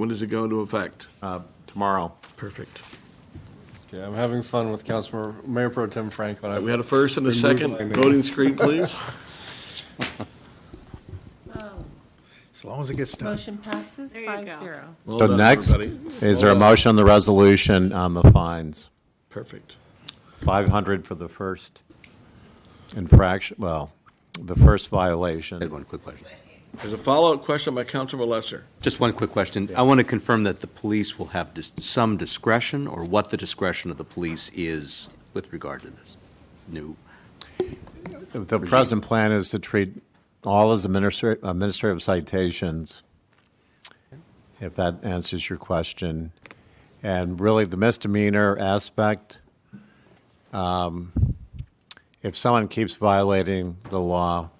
When does it go into effect? uh, tomorrow. Perfect. Yeah, I'm having fun with Councilmember, Mayor Pro Tem Franklin. We had a first and a second. my name. Voting screen, please. As long as it gets done. Motion passes There you five go. zero. Well So done, next, everybody. is there a motion on the resolution on the fines? Perfect. 500 for the first infraction, well, the first I had violation. one quick question. There's a follow-up question by Councilman Lesser. Just one quick question. I want to confirm that the police will have dis- some discretion, or what the discretion of the police is with regard to this new. The present plan is to treat all as administra- administrative citations, if that answers your question. And really, the misdemeanor aspect, um, if someone keeps violating the law,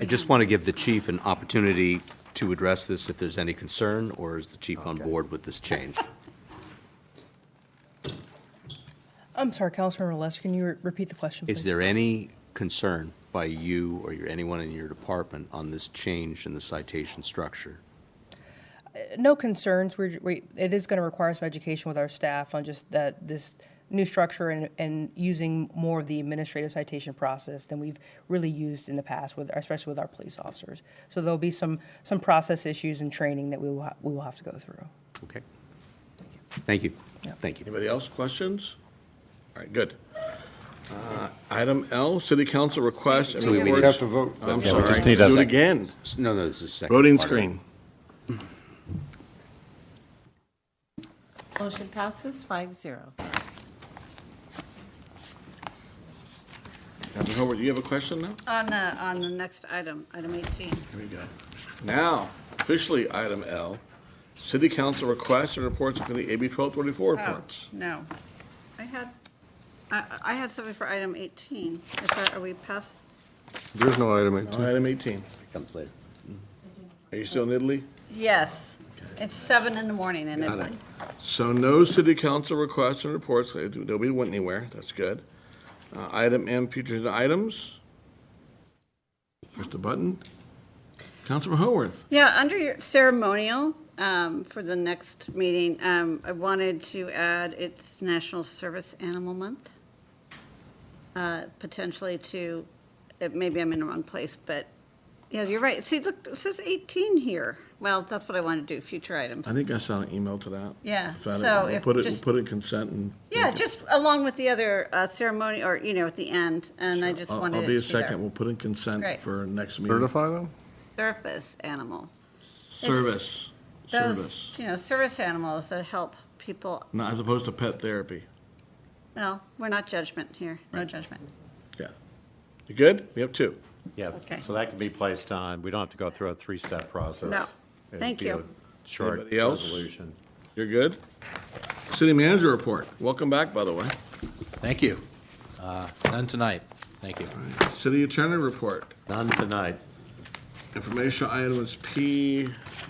I just want to give the chief an opportunity to address this if there's any concern, or is the chief on board with this change? I'm sorry, Councilmember Lesser, can you re- repeat the question, please? Is there any concern by you or your, anyone in your department on this change in the citation structure? No concerns. We're, we, it is going to require some education with our staff on just that, this new structure and, and using more of the administrative citation process than we've really used in the past with, especially with our police officers. So there'll be some, some process issues and training that we will, ha- we will have to go through. Okay. Thank you. Yeah. Thank you. Anybody else? Questions? All right, good. Uh, Item L, City Council requests and So we- we reports. have to vote. I'm Yeah, we sorry. just need a Do it second. again. No, no, this is second. Voting part of it. screen. Motion passes five zero. Captain Hobart, do you have a question now? On the, on the next item, item 18. Here we go. Now, officially, item L, City Council requests and reports from the AB 1234 Oh, reports. no. I had, I, I had something for item 18. Is that, are we past? There's no item 18. Item 18. Comes later. Are you still in Italy? Yes. It's seven in the morning and Got it, it. So no city council requests and reports, Uh, no, we went anywhere, that's good. Uh, Item M, future agenda items. Push the button. Councilman Howarth. yeah, under your ceremonial, um, for the next meeting, um, I wanted to add it's National Service Animal Month. Uh, potentially to, uh, maybe I'm in the wrong place, but, yeah, you're right. See, look, it says 18 here. Well, that's what I want to do, future items. I think I saw an email to that. Yeah, Found it. Uh, so We'll if Put it, we'll just- put it in consent and. Yeah, just along with the other uh, ceremony, or, you know, at the end, and I just I'll- wanted it I'll to be be a second, there. we'll put in consent Great. for next meeting. Certify them? Surface animal. Service, Those, service, you know, service animals that help people, not as opposed to pet therapy. no, we're not judgment here, no judgment. Yeah. You good? We have two. Yeah, Okay. so that can be placed on, we don't have to go through a three-step process. No. Thank It'd be you. a Short Anybody else? resolution. You're good? City manager report. Welcome back, by the way. Thank you. Uh, None tonight. Thank you. City attorney report. None tonight. Informational item is P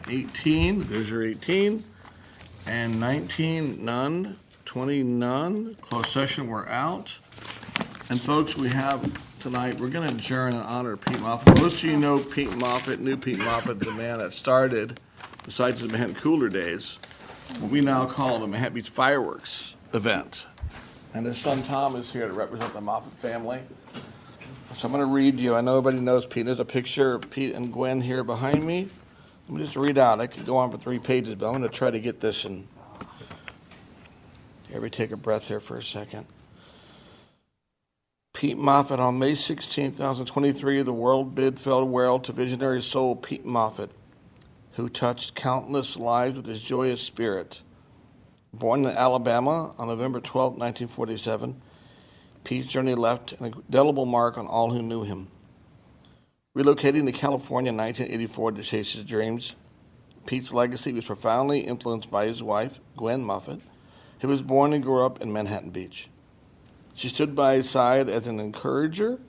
eighteen, there's your eighteen, and nineteen, none, twenty, none, closed session, we're out. And folks, we have tonight, we're gonna adjourn in honor of Pete Moffett. Most of you know Pete Moffett, knew Pete Moffett, the man that started, besides the Manhattan Cooler Days, what we now call the Manhattan Beach Fireworks Event. And his son Tom is here to represent the Moffett family. So I'm going to read you. I know everybody knows Pete. There's a picture of Pete and Gwen here behind me. Let me just read out. I could go on for three pages, but I'm going to try to get this in. Everybody take a breath here for a second. Pete Moffat on May 16, 2023, the world bid farewell to visionary soul Pete Moffat, who touched countless lives with his joyous spirit. Born in Alabama on November 12, 1947, Pete's journey left an indelible mark on all who knew him. Relocating to California in 1984 to chase his dreams, Pete's legacy was profoundly influenced by his wife, Gwen Moffett, who was born and grew up in Manhattan Beach. She stood by his side as an encourager,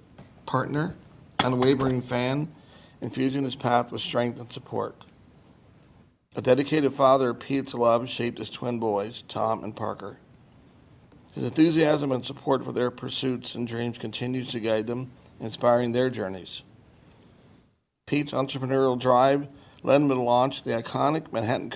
partner, unwavering fan, infusing his path with strength and support. A dedicated father, Pete's love shaped his twin boys, Tom and Parker. His enthusiasm and support for their pursuits and dreams continues to guide them, inspiring their journeys. Pete's entrepreneurial drive led him to launch the iconic Manhattan